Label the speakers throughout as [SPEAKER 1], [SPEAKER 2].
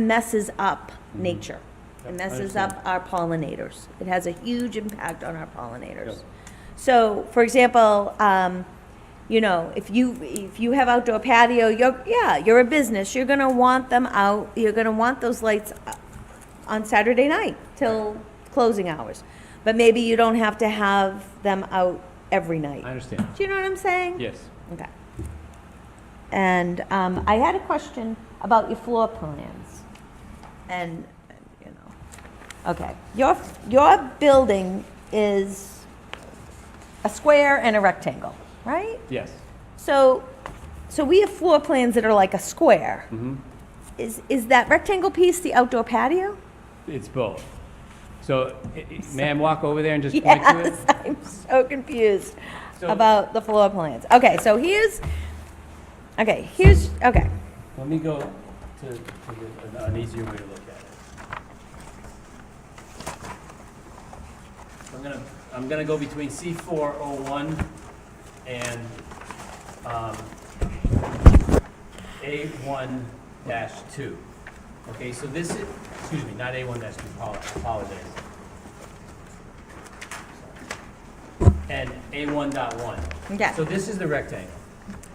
[SPEAKER 1] messes up nature. It
[SPEAKER 2] Mm-hmm. Yep, I
[SPEAKER 1] messes
[SPEAKER 2] understand.
[SPEAKER 1] up our pollinators. It has a huge impact on our pollinators.
[SPEAKER 2] Yep.
[SPEAKER 1] So, for example, um, you know, if you, if you have outdoor patio, you're, yeah, you're a business, you're gonna want them out, you're gonna want those lights up on Saturday night till closing hours. But maybe you don't have to have them out every
[SPEAKER 2] I
[SPEAKER 1] night.
[SPEAKER 2] understand.
[SPEAKER 1] Do you know what I'm saying?
[SPEAKER 2] Yes.
[SPEAKER 1] Okay. And um, I had a question about your floor plans. And, you know, okay, your, your building is a square and a rectangle, right?
[SPEAKER 2] Yes.
[SPEAKER 1] So, so we have floor plans that are like a square.
[SPEAKER 2] Mm-hmm.
[SPEAKER 1] Is, is that rectangle piece the outdoor patio?
[SPEAKER 2] It's both. So, i- i- may I walk over there and just point to it?
[SPEAKER 1] Yes, I'm so confused
[SPEAKER 2] So-
[SPEAKER 1] about the floor plans. Okay, so here's, okay, here's, okay.
[SPEAKER 2] Let me go to, to the- an- an easier way to look at it. I'm gonna, I'm gonna go between C four oh one and, um, A one dash two. Okay, so this is, excuse me, not A one dash two, apologize. And A one dot one.
[SPEAKER 1] Okay.
[SPEAKER 2] So this is the rectangle.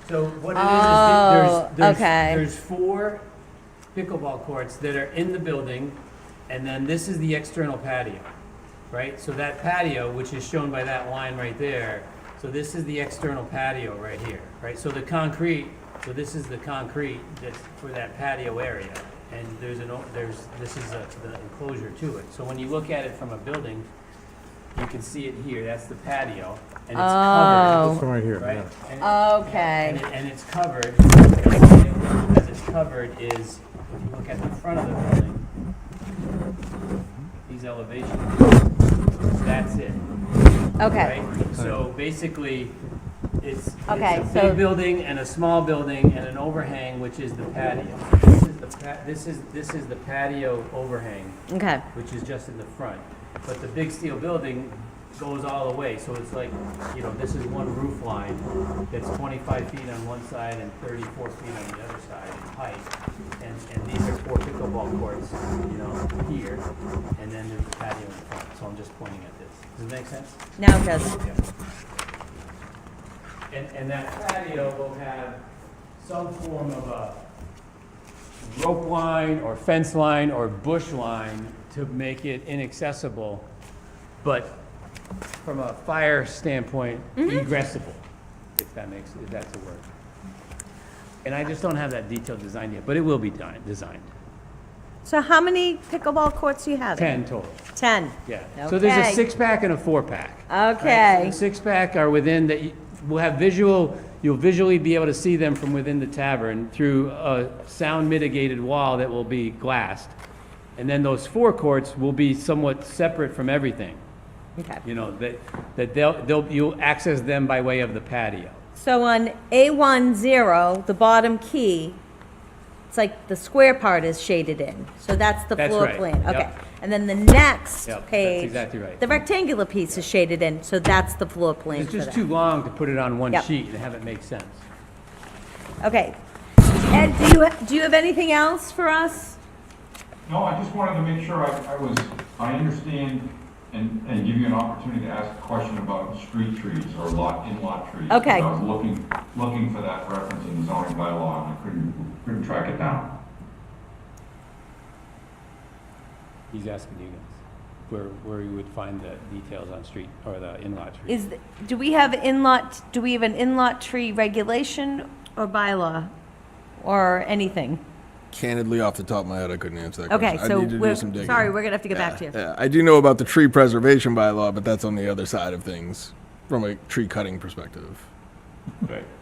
[SPEAKER 2] So what it is,
[SPEAKER 1] Oh,
[SPEAKER 2] is that there's,
[SPEAKER 1] okay.
[SPEAKER 2] there's, there's four pickleball courts that are in the building, and then this is the external patio, right? So that patio, which is shown by that line right there, so this is the external patio right here, right? So the concrete, so this is the concrete that's for that patio area, and there's an, o- there's, this is a- the enclosure to it. So when you look at it from a building, you can see it here, that's the patio, and it's covered,
[SPEAKER 1] Oh,
[SPEAKER 3] right here,
[SPEAKER 2] right? And- and,
[SPEAKER 1] okay.
[SPEAKER 2] it, and it's covered, because it's covered is, if you look at the front of the building, these elevations, that's it,
[SPEAKER 1] Okay,
[SPEAKER 2] right? So basically, it's, it's
[SPEAKER 1] Okay,
[SPEAKER 2] a
[SPEAKER 1] so-
[SPEAKER 2] big building and a small building and an overhang, which is the patio. This is the pa, this is, this is the patio overhang,
[SPEAKER 1] okay,
[SPEAKER 2] which is just in the front. But the big steel building goes all the way, so it's like, you know, this is one roof line that's twenty-five feet on one side and thirty-four feet on the other side in height. And, and these are four pickleball courts, you know, here, and then there's a patio in front, so I'm just pointing at this. Does that make sense?
[SPEAKER 1] now it does.
[SPEAKER 2] And, and that patio will have some form of a rope line or fence line or bush line to make it inaccessible, but from a fire standpoint, egressable, if that makes, if that's a word. And I just don't have that detailed design yet, but it will be done, designed.
[SPEAKER 1] So how many pickleball courts do you have?
[SPEAKER 2] Ten total,
[SPEAKER 1] Ten.
[SPEAKER 2] yeah. So there's
[SPEAKER 1] Okay.
[SPEAKER 2] a six-pack and a four-pack. Right, so
[SPEAKER 1] Okay,
[SPEAKER 2] The six-pack are within, that, we'll have visual, you'll visually be able to see them from within the tavern through a sound mitigated wall that will be glassed. And then those four courts will be somewhat separate from everything,
[SPEAKER 1] okay.
[SPEAKER 2] you know, that, that they'll, they'll, you'll access them by way of the patio.
[SPEAKER 1] So on A one zero, the bottom key, it's like the square part is shaded in, so that's the
[SPEAKER 2] That's
[SPEAKER 1] floor
[SPEAKER 2] right,
[SPEAKER 1] plan,
[SPEAKER 2] yep.
[SPEAKER 1] okay. And then the next
[SPEAKER 2] Yep, that's
[SPEAKER 1] page.
[SPEAKER 2] exactly right.
[SPEAKER 1] The rectangular piece is shaded in, so that's the floor plan
[SPEAKER 2] It's
[SPEAKER 1] for
[SPEAKER 2] just
[SPEAKER 1] that.
[SPEAKER 2] too long to put it on one
[SPEAKER 1] Yep.
[SPEAKER 2] sheet and have it make sense.
[SPEAKER 1] Okay. Ed, do you, do you have anything else for us?
[SPEAKER 4] No, I just wanted to make sure I, I was, I understand and, and give you an opportunity to ask a question about street trees or lot, in-lot trees.
[SPEAKER 1] Okay.
[SPEAKER 4] because I was looking, looking for that reference in the zoning bylaw and I couldn't, couldn't track it down.
[SPEAKER 2] He's asking you guys where, where you would find the details on street, or the in-lot trees.
[SPEAKER 1] Is, th- do we have in-lot, do we have an in-lot tree regulation or bylaw or anything?
[SPEAKER 5] Candidly, off the top of my head, I couldn't answer that
[SPEAKER 1] Okay,
[SPEAKER 5] question. I
[SPEAKER 1] so
[SPEAKER 5] need to do
[SPEAKER 1] we're,
[SPEAKER 5] some digging.
[SPEAKER 1] sorry, we're gonna have to get back to you.
[SPEAKER 5] Yeah, I do know about the tree preservation bylaw, but that's on the other side of things from a tree cutting perspective.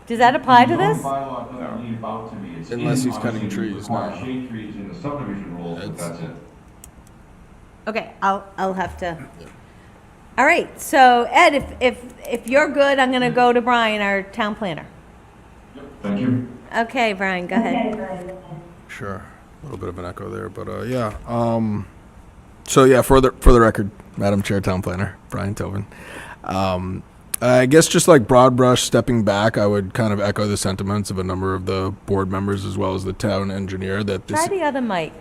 [SPEAKER 1] Does that apply to
[SPEAKER 4] The zoning
[SPEAKER 1] this?
[SPEAKER 4] bylaw doesn't leave out to me. It's in,
[SPEAKER 5] Unless he's cutting
[SPEAKER 4] obviously, we
[SPEAKER 5] trees,
[SPEAKER 4] require
[SPEAKER 5] no.
[SPEAKER 4] Shade trees in the subdivision rules, but
[SPEAKER 5] It's-
[SPEAKER 4] that's it.
[SPEAKER 1] Okay, I'll, I'll have to. All right, so Ed, if, if, if you're good, I'm gonna go to Brian, our town planner.
[SPEAKER 4] Thank you.
[SPEAKER 1] Okay, Brian, go ahead.
[SPEAKER 5] Sure. A little bit of an echo there, but uh, yeah. Um, so yeah, for the for the record, Madam Chair, Town Planner Brian Tobin. Um, I guess just like broad brush stepping back, I would kind of echo the sentiments of a number of the board members as well as the town engineer that this
[SPEAKER 1] Try the other mic.